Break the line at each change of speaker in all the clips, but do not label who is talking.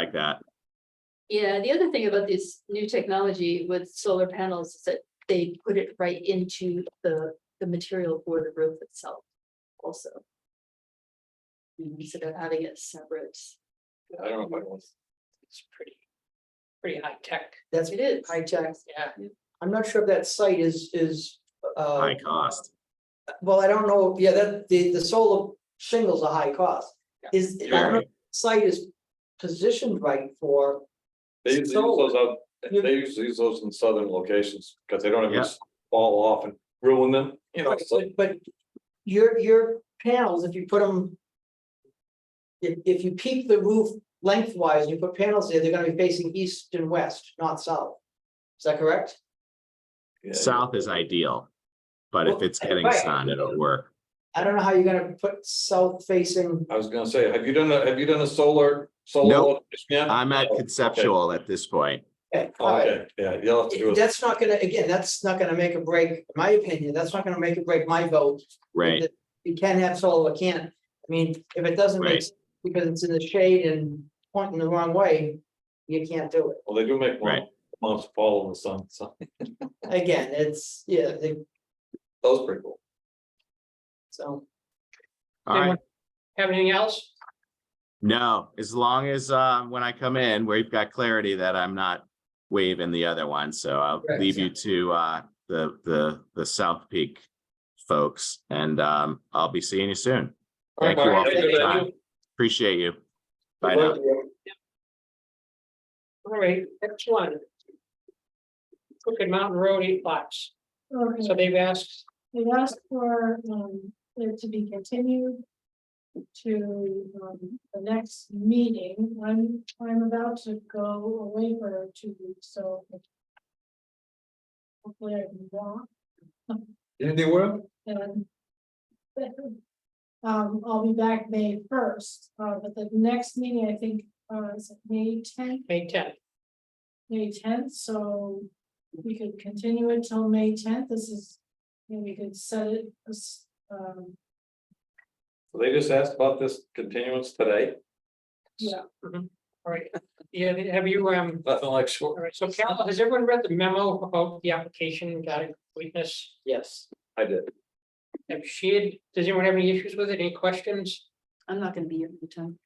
like that.
Yeah, the other thing about this new technology with solar panels is that they put it right into the, the material for the roof itself also. Instead of having it separate,
I don't know if I want.
It's pretty, pretty high tech,
That's
it is.
high tech.
yeah.
I'm not sure if that site is, is, uh,
High cost.
well, I don't know, yeah, that, the, the solar shingles are high cost. Is, I don't know, if
Jeremy.
the site is positioned right for,
They usually
So-
use those out,
You-
they usually use those in southern locations, because they don't have
Yeah.
to fall off and ruin them, you know, it's like,
but your, your panels, if you put them. If, if you peak the roof lengthwise, and you put panels there, they're gonna be facing east and west, not south. Is that correct?
yeah.
South is ideal. But if it's getting
Right.
sun, it'll work.
I don't know how you're gonna put south facing,
I was gonna say, have you done a, have you done a solar,
No.
solar? Yeah,
I'm at
Oh, okay.
conceptual at this point.
okay, all right.
okay, yeah, you'll have to do it,
That's not gonna, again, that's not gonna make a break, in my opinion, that's not gonna make a break my vote.
Right,
that You can have solar, can't, I mean, if it doesn't make,
Right.
sense because it's in the shade and pointing the wrong way, you can't do it.
well, they do make
Right.
one, months fall in the sun, so,
Again, it's, yeah, they-
that was pretty cool.
so,
all right.
Have anything else?
No, as long as, uh, when I come in, we've got clarity that I'm not waving the other one, so I'll
Right,
leave you to, uh, the, the, the South Peak folks, and, um, I'll be seeing you soon. Thank you all for
Thank
your
you.
time. Appreciate you. Bye now.
All right, next one. Crooked Mountain Road, eight lots,
Okay,
so they've asked,
they asked for, um, it to be continued to, um, the next meeting. I'm, I'm about to go away for two weeks, so hopefully I can walk
Anything work?
and um, I'll be back May first, uh, but the next meeting, I think, uh, is May tenth,
May tenth,
May tenth, so we could continue it till May tenth. This is, and we could set it, as, um,
They just asked about this continuance today,
Yeah,
all right, yeah, have you, um,
nothing like
all
short,
right, so Cal, has everyone read the memo about the application, got it, completeness?
yes.
I did,
Have shared, does anyone have any issues with it, any questions?
I'm not gonna be here for the time.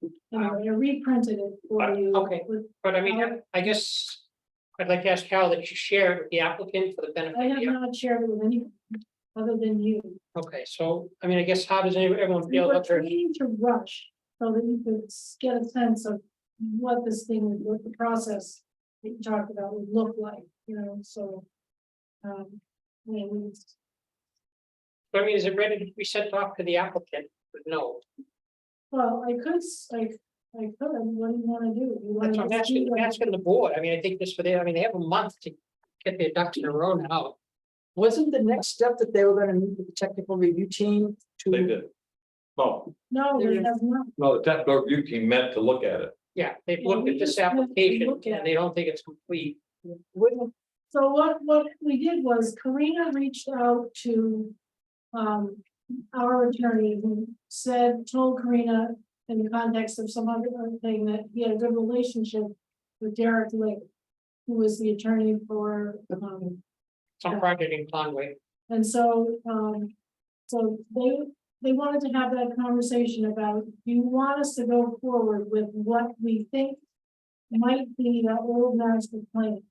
you know, I reprinted it for you.
Okay.
with-
Um, But I mean, I guess, I'd like to ask Cal that you share it with the applicant for the benefit.
I
of
have
the
not shared it with anyone other than you.
Okay, so, I mean, I guess how does anyone- everyone
We
feel
were
about their,
trying to rush so that you could s- get a sense of what this thing, would- what the process that you talked about would look like, you know, so. Um, I mean, we
I mean, is it ready to be sent off to the applicant? No,
well, I could, s- I, I could, what do you wanna do? You
that's
wanna
what I'm
just do
asking, I'm
that?
asking the board. I mean, I think this for them, I mean, they have a month to get their ducks in a row now.
Wasn't the next step that they were gonna meet with the technical review team to?
they did. No,
No,
There
we
is-
have not.
no, the technical review team meant to look at it,
Yeah, they've
Yeah,
looked
we
at this
just have to
application
look at
and they don't think it's complete.
Wouldn't,
So what, what we did was Karina reached out to. Um, our attorney who said, told Karina in the context of some other thing that he had a good relationship with Derek Lake. Who was the attorney for, um,
Some project in Conway.
and so, um. So they, they wanted to have that conversation about, do you want us to go forward with what we think? Might be the old master plan.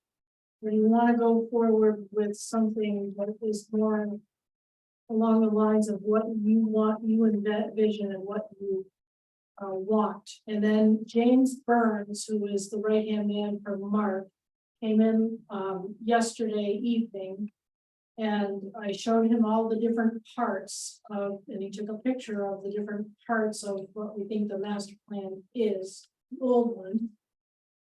Or do you wanna go forward with something that is more. Along the lines of what you want, you envision and what you. Uh, want, and then James Burns, who is the right hand man for Mark. Came in, um, yesterday evening. And I showed him all the different parts of, and he took a picture of the different parts of what we think the master plan is, the old one.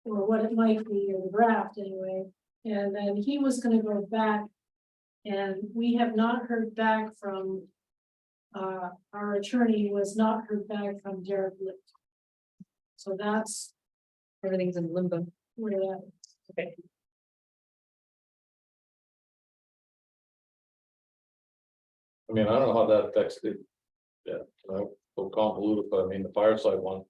Or what it might be, or the draft anyway, and then he was gonna go back. And we have not heard back from. Uh, our attorney was not heard back from Derek Licht. So that's
Everything's in limbo.
where that
I mean, I don't know how that affects the. Yeah, I, so convoluted, but I mean, the fireside one,